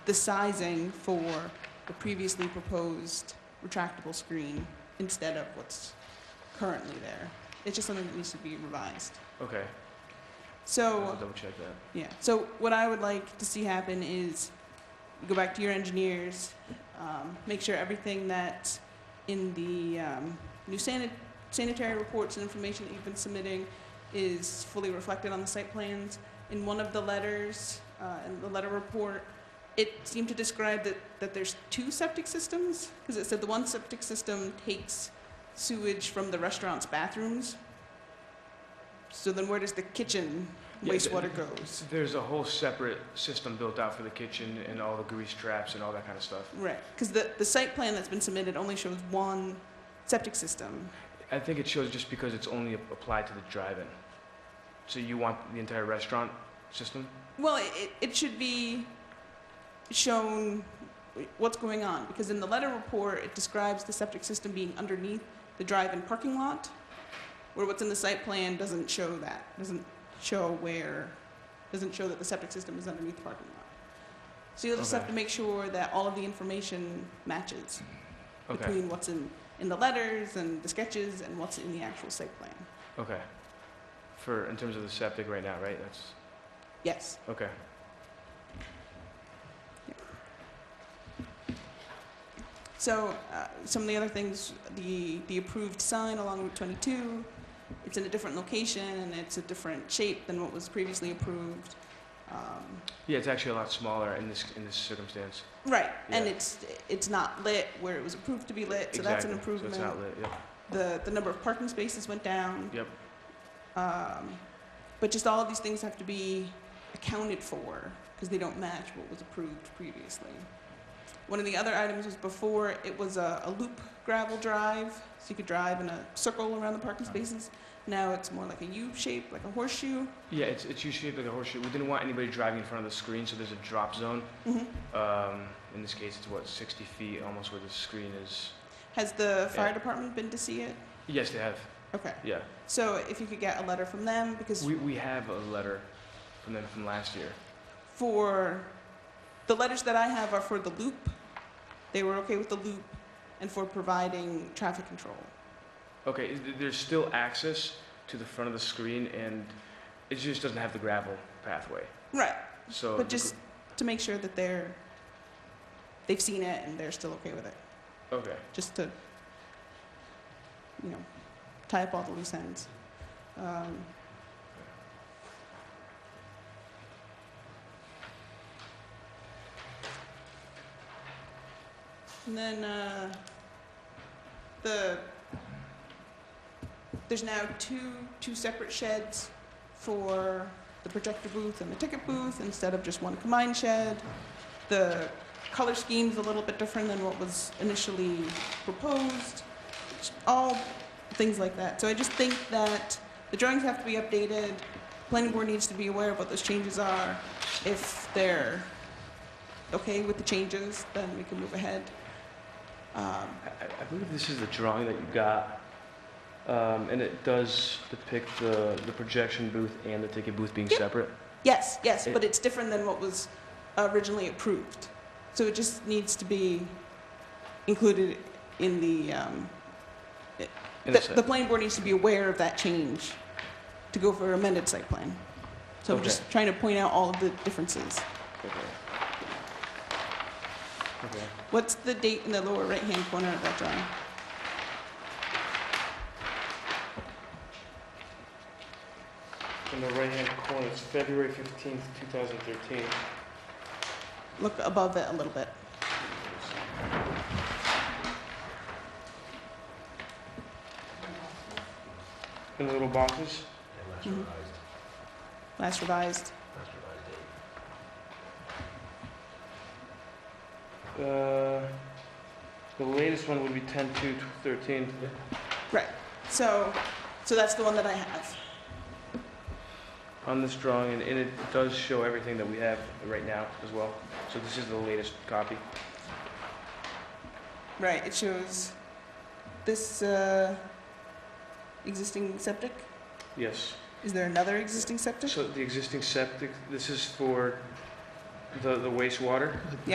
the sizing for the previously proposed retractable screen instead of what's currently there. It's just something that needs to be revised. Okay, I'll So, double check that. yeah, so what I would like to see happen is you go back to your engineers, um, make sure everything that's in the um, new sanit- sanitary reports and information that you've been submitting is fully reflected on the site plans. In one of the letters, uh, in the letter report, it seemed to describe that, that there's two septic systems, because it said the one septic system takes sewage from the restaurant's bathrooms. So then where does the kitchen Yeah, th- wastewater goes? There's a whole separate system built out for the kitchen and all the grease traps and all that kind of stuff. Right, because the, the site plan that's been submitted only shows one septic system. I think it shows just because it's only ap- applied to the drive-in. So you want the entire restaurant system? Well, it, it- it should be shown what's going on, because in the letter report, it describes the septic system being underneath the drive-in parking lot, where what's in the site plan doesn't show that, doesn't show where, doesn't show that the septic system is underneath the parking lot. So you'll just have Okay. to make sure that all of the information matches Okay, between what's in, in the letters and the sketches and what's in the actual site plan. okay. For, in terms of the septic right now, right? That's, Yes. okay. So uh, some of the other things, the, the approved sign along Route 22, it's in a different location and it's a different shape than what was previously approved. Um, Yeah, it's actually a lot smaller in this, in this circumstance. right, and Yeah. it's it's not lit where it was approved to be lit, so that's an Exactly. improvement. So it's not lit, yeah. the the number of parking spaces went down. Yep. Um, but just all of these things have to be accounted for because they don't match what was approved previously. One of the other items was before it was a, a loop gravel drive, so you could drive in a circle around the parking Uh-huh. spaces. Now it's more like a U shape, like a horseshoe. Yeah, it's, it's usually like a horseshoe. We didn't want anybody driving in front of the screen, so there's a drop zone. Mm-hmm. Um, in this case, it's what, 60 feet, almost where the screen is. Has the fire Yeah. department been to see it? Yes, they have. Okay. Yeah. So if you could get a letter from them, because We, we have a letter from them from last year. for the letters that I have are for the loop. They were okay with the loop and for providing traffic control. Okay, is- there's still access to the front of the screen, and it just doesn't have the gravel pathway. Right. But So, the gr- just to make sure that they're, they've seen it and they're still okay with it, okay, just to, you know, tie up all the loose ends. Um, and then uh, the there's now two two separate sheds for the projector booth and the ticket booth instead of just one combined shed. The color scheme's a little bit different than what was initially proposed. Just All things like that. So I just think that the drawings have to be updated. Planning board needs to be aware of what those changes are. If they're okay with the changes, then we can move ahead. Um, I, I- I believe this is the drawing that you got, um, and it does depict the, the projection booth and the ticket booth being Yep. separate. Yes, yes, It- but it's different than what was originally approved. So it just needs to be included in the, um, In the, a sec. the planning board needs to be aware of that change to go for amended site plan. So I'm Okay. just trying to point out all of the differences. okay. Okay. What's the date in the lower right-hand corner of that drawing? In the right-hand corner, it's February 15th, 2013. Look above it a little bit. In the little boxes? And last Mhm. revised, Last revised. last revised date. Uh, the latest one would be 10-2-13. Right. So, so that's the one that I have. on this drawing, and and it does show everything that we have right now as well. So this is the latest copy. Right, it shows this uh, existing septic. Yes. Is there another existing septic? So the existing septic, this is for the the wastewater?